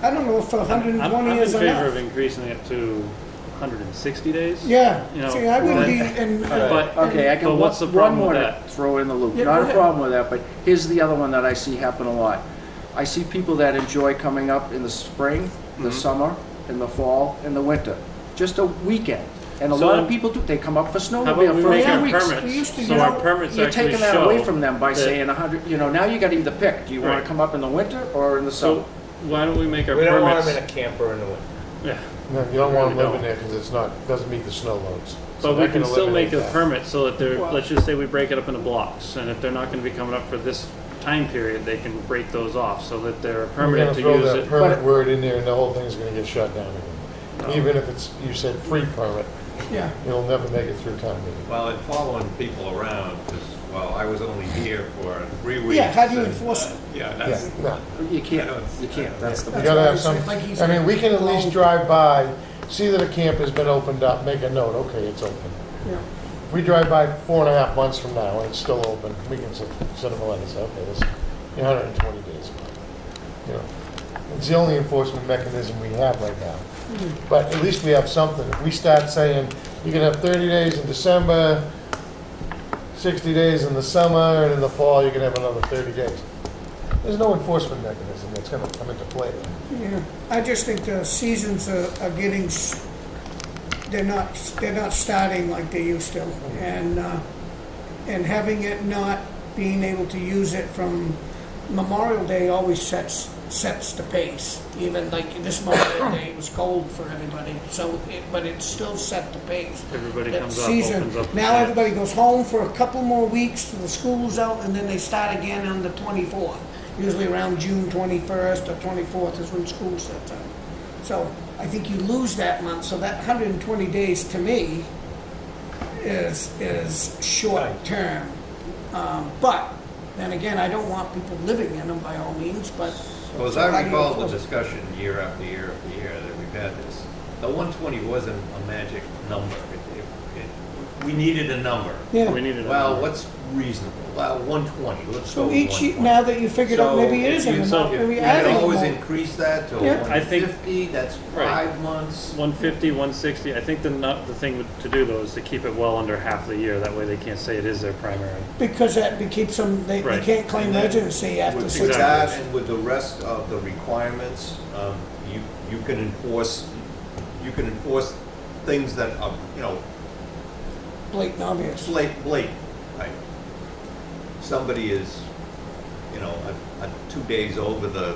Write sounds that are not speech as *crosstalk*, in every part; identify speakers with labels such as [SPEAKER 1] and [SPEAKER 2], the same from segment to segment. [SPEAKER 1] I don't know if hundred and
[SPEAKER 2] I'm, I'm
[SPEAKER 1] twenty
[SPEAKER 2] in
[SPEAKER 1] is
[SPEAKER 2] favor of
[SPEAKER 1] enough.
[SPEAKER 2] increasing it to 160 days.
[SPEAKER 1] Yeah,
[SPEAKER 2] you know,
[SPEAKER 1] see, I would
[SPEAKER 2] but-
[SPEAKER 1] be, uh, and,
[SPEAKER 2] But-
[SPEAKER 3] Okay, I
[SPEAKER 2] but
[SPEAKER 3] can,
[SPEAKER 2] what's the
[SPEAKER 3] one
[SPEAKER 2] problem
[SPEAKER 3] more
[SPEAKER 2] with
[SPEAKER 3] to
[SPEAKER 2] that?
[SPEAKER 3] throw in the loop,
[SPEAKER 1] Yeah,
[SPEAKER 3] not
[SPEAKER 1] go
[SPEAKER 3] a
[SPEAKER 1] ahead.
[SPEAKER 3] problem with that, but here's the other one that I see happen a lot. I see people that enjoy coming up in the spring,
[SPEAKER 2] Mm-hmm.
[SPEAKER 3] the summer, in the fall, in the winter, just a weekend. And a
[SPEAKER 2] So
[SPEAKER 3] lot of
[SPEAKER 2] I'm-
[SPEAKER 3] people do, they come up for
[SPEAKER 2] How about
[SPEAKER 3] snowmobile
[SPEAKER 2] we
[SPEAKER 3] for
[SPEAKER 2] make
[SPEAKER 3] a
[SPEAKER 2] our
[SPEAKER 3] few weeks.
[SPEAKER 1] We used to,
[SPEAKER 2] permits,
[SPEAKER 1] you
[SPEAKER 2] so our
[SPEAKER 1] know,
[SPEAKER 2] permits
[SPEAKER 3] You're
[SPEAKER 2] actually
[SPEAKER 3] taking that away
[SPEAKER 2] show.
[SPEAKER 3] from them by
[SPEAKER 2] that-
[SPEAKER 3] saying a hundred, you know, now you gotta either pick, do you wanna
[SPEAKER 2] Right.
[SPEAKER 3] come up in the winter or in the
[SPEAKER 2] So
[SPEAKER 3] summer?
[SPEAKER 2] why don't we make our
[SPEAKER 4] We don't want them in
[SPEAKER 2] permits?
[SPEAKER 4] a camper in the winter.
[SPEAKER 2] Yeah,
[SPEAKER 5] No, you don't want
[SPEAKER 2] Really
[SPEAKER 5] them living
[SPEAKER 2] don't.
[SPEAKER 5] there because it's not, doesn't meet the snow loads. So
[SPEAKER 2] But we
[SPEAKER 5] that
[SPEAKER 2] can still
[SPEAKER 5] eliminate
[SPEAKER 2] make a
[SPEAKER 5] that.
[SPEAKER 2] permit so that they're,
[SPEAKER 1] Well-
[SPEAKER 2] let's just say we break it up into blocks, and if they're not gonna be coming up for this time period, they can break those off, so that they're
[SPEAKER 5] We're
[SPEAKER 2] permitted
[SPEAKER 5] gonna
[SPEAKER 2] to
[SPEAKER 5] throw
[SPEAKER 2] use
[SPEAKER 5] that
[SPEAKER 2] it.
[SPEAKER 5] permit
[SPEAKER 3] But-
[SPEAKER 5] word in there and the whole thing's gonna get shut down again. Even if it's, you said free permit,
[SPEAKER 1] yeah,
[SPEAKER 5] you'll never make it through town meeting.
[SPEAKER 6] Well, and following people around, because, well, I was only here for three weeks.
[SPEAKER 1] yeah, how do you
[SPEAKER 6] and,
[SPEAKER 1] enforce it?
[SPEAKER 6] uh, Yeah,
[SPEAKER 5] Yeah,
[SPEAKER 6] that's,
[SPEAKER 5] no.
[SPEAKER 3] You can't,
[SPEAKER 6] I know it's-
[SPEAKER 3] you can't, that's the.
[SPEAKER 5] You
[SPEAKER 1] That's
[SPEAKER 5] gotta
[SPEAKER 1] what I
[SPEAKER 5] have some,
[SPEAKER 1] said, like he
[SPEAKER 5] I mean,
[SPEAKER 1] said.
[SPEAKER 5] we can at least
[SPEAKER 1] Well-
[SPEAKER 5] drive by, see that a camp has been opened up, make a note, okay, it's open.
[SPEAKER 1] yeah.
[SPEAKER 5] If we drive by four and a half months from now and it's still open, we can send send them a letter, say, okay, this, you hundred and twenty days. You know, It's the only enforcement mechanism we have right now.
[SPEAKER 1] Mm-hmm.
[SPEAKER 5] But at least we have something. If we start saying, you can have thirty days in December, sixty days in the summer, and in the fall, you can have another thirty days. There's no enforcement mechanism that's gonna come into play then.
[SPEAKER 1] Yeah, I just think the seasons are, are getting, s- they're not, they're not starting like they used to. And, uh, and having it not, being able to use it from Memorial Day always sets, sets the pace. Even like this Memorial Day, it was cold for everybody, so, it- but it still set the pace.
[SPEAKER 2] Everybody
[SPEAKER 1] That
[SPEAKER 2] comes up,
[SPEAKER 1] season,
[SPEAKER 2] opens up.
[SPEAKER 1] Now everybody goes home for a couple more weeks till the school's out, and then they start again on the 24th. Usually around June 21st or 24th is when school sets up. So I think you lose that month, so that 120 days to me is, is short term. Um, But, then again, I don't want people living in them by all means, but.
[SPEAKER 6] well, as
[SPEAKER 1] How
[SPEAKER 6] I
[SPEAKER 1] do you
[SPEAKER 6] recall the
[SPEAKER 1] enforce it?
[SPEAKER 6] discussion year after year after year that we've had this, the one twenty wasn't a magic number. It- it- it- We needed a number.
[SPEAKER 2] We
[SPEAKER 1] Yeah,
[SPEAKER 2] need it.
[SPEAKER 6] Well, what's reasonable? Well, one twenty, let's go
[SPEAKER 1] so
[SPEAKER 6] with
[SPEAKER 1] each, ye-
[SPEAKER 6] 120.
[SPEAKER 1] now that you figured out,
[SPEAKER 6] So
[SPEAKER 1] maybe it
[SPEAKER 6] if
[SPEAKER 1] isn't
[SPEAKER 6] you-
[SPEAKER 1] enough,
[SPEAKER 6] if
[SPEAKER 1] maybe
[SPEAKER 6] you
[SPEAKER 1] adding
[SPEAKER 6] could
[SPEAKER 1] more.
[SPEAKER 6] always increase that to
[SPEAKER 1] Yeah.
[SPEAKER 2] I think-
[SPEAKER 6] 150, that's
[SPEAKER 2] Right.
[SPEAKER 6] five months.
[SPEAKER 2] 150, 160, I think the, nut- the thing to do though is to keep it well under half the year, that way they can't say it is their primary.
[SPEAKER 1] Because that be- keeps them, they, they
[SPEAKER 2] Right.
[SPEAKER 1] can't claim
[SPEAKER 6] And then
[SPEAKER 1] residency after
[SPEAKER 6] With
[SPEAKER 1] six
[SPEAKER 2] exactly.
[SPEAKER 1] months.
[SPEAKER 6] that and with the rest of the requirements, um, you, you can enforce, you can enforce things that are, you know,
[SPEAKER 1] Blatant obvious.
[SPEAKER 6] slate, blade, like, somebody is, you know, a, a two days over the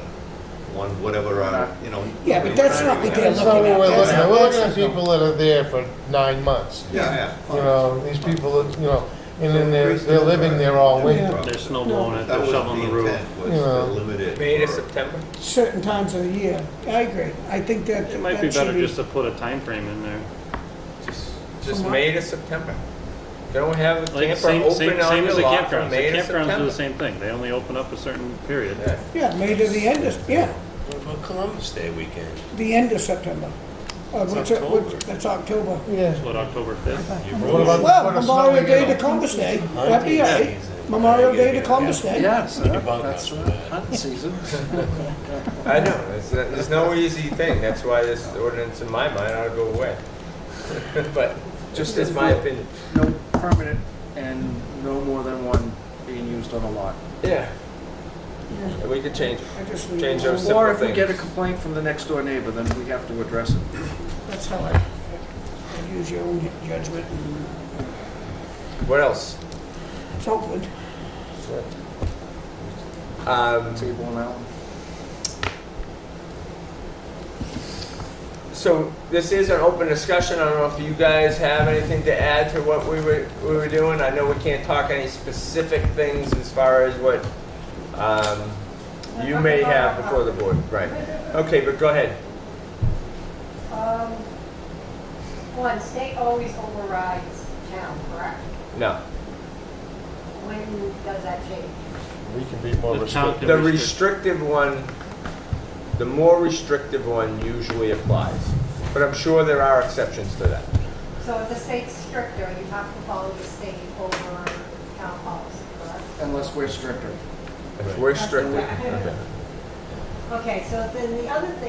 [SPEAKER 6] one, whatever, uh, you know.
[SPEAKER 1] Yeah, but that's not what they're
[SPEAKER 5] That's not what we're looking at. We're looking at
[SPEAKER 1] That's not-
[SPEAKER 5] people that are there for nine months.
[SPEAKER 6] Yeah,
[SPEAKER 5] You
[SPEAKER 6] yeah.
[SPEAKER 5] know, these people, that, you know, and then they're, they're living there all winter.
[SPEAKER 1] Yeah.
[SPEAKER 2] They're snow blowing it,
[SPEAKER 6] That
[SPEAKER 2] they're
[SPEAKER 6] was
[SPEAKER 2] shoveling the
[SPEAKER 6] the
[SPEAKER 2] roof.
[SPEAKER 6] intent, was
[SPEAKER 5] You
[SPEAKER 6] to
[SPEAKER 5] know.
[SPEAKER 6] limit it.
[SPEAKER 4] May to
[SPEAKER 6] for-
[SPEAKER 4] September?
[SPEAKER 1] Certain times of the year. I agree. I think that.
[SPEAKER 2] It might
[SPEAKER 1] that
[SPEAKER 2] be
[SPEAKER 1] should
[SPEAKER 2] better just to put a time frame in there.
[SPEAKER 4] Just, just
[SPEAKER 1] From
[SPEAKER 4] May to September. Don't have a
[SPEAKER 2] Like,
[SPEAKER 4] camper
[SPEAKER 2] same, same,
[SPEAKER 4] open on
[SPEAKER 2] same as
[SPEAKER 4] your
[SPEAKER 2] the
[SPEAKER 4] lot from
[SPEAKER 2] campgrounds,
[SPEAKER 4] May
[SPEAKER 2] the
[SPEAKER 4] to
[SPEAKER 2] campgrounds do the
[SPEAKER 4] September.
[SPEAKER 2] same thing, they only open up a certain period.
[SPEAKER 4] Yeah.
[SPEAKER 1] Yeah, May to the end of, yeah,
[SPEAKER 7] What about Columbus Day weekend?
[SPEAKER 1] the end of September. Uh, which,
[SPEAKER 7] October.
[SPEAKER 1] which, that's October.
[SPEAKER 5] Yeah.
[SPEAKER 2] What, October 5th?
[SPEAKER 5] What about the
[SPEAKER 1] Well,
[SPEAKER 5] foot of snow
[SPEAKER 1] Memorial
[SPEAKER 5] you
[SPEAKER 1] Day to
[SPEAKER 5] get?
[SPEAKER 1] Columbus Day. That'd be all right.
[SPEAKER 7] Hunting.
[SPEAKER 1] Memorial Day to Columbus Day.
[SPEAKER 3] Yes,
[SPEAKER 7] Think about
[SPEAKER 3] that's
[SPEAKER 7] that.
[SPEAKER 3] right,
[SPEAKER 7] *laughs*
[SPEAKER 3] hunting season.
[SPEAKER 4] I know, it's, uh, there's no easy thing, that's why this ordinance in my mind ought to go away. *laughs* But, just as my opinion,
[SPEAKER 3] No permanent and no more than one being used on a lot.
[SPEAKER 4] yeah,
[SPEAKER 1] Yeah,
[SPEAKER 4] we could change it.
[SPEAKER 1] I just leave
[SPEAKER 4] Change
[SPEAKER 1] it alone.
[SPEAKER 4] those Simple
[SPEAKER 3] Or if we get a
[SPEAKER 4] things.
[SPEAKER 3] complaint from the next door neighbor, then we have to address it.
[SPEAKER 1] That's how I, I use your own judgment and
[SPEAKER 4] What else?
[SPEAKER 1] so forth.
[SPEAKER 4] Um,
[SPEAKER 3] Table on that one.
[SPEAKER 4] So this is an open discussion. I don't know if you guys have anything to add to what we were, we were doing. I know we can't talk any specific things as far as what um, you may have before the board. Right. Okay, but go ahead.
[SPEAKER 8] Um, one, state always overrides town, correct?
[SPEAKER 4] No.
[SPEAKER 8] When does that change?
[SPEAKER 5] We can be more
[SPEAKER 2] The town
[SPEAKER 5] restrictive.
[SPEAKER 2] can-
[SPEAKER 4] The restrictive one, the more restrictive one usually applies. But I'm sure there are exceptions to that.
[SPEAKER 8] So if the state's stricter, you have to follow the state over town policy, correct?
[SPEAKER 3] Unless we're stricter.
[SPEAKER 4] If we're
[SPEAKER 8] That's
[SPEAKER 4] stricter.
[SPEAKER 8] correct. Okay, so then the other thing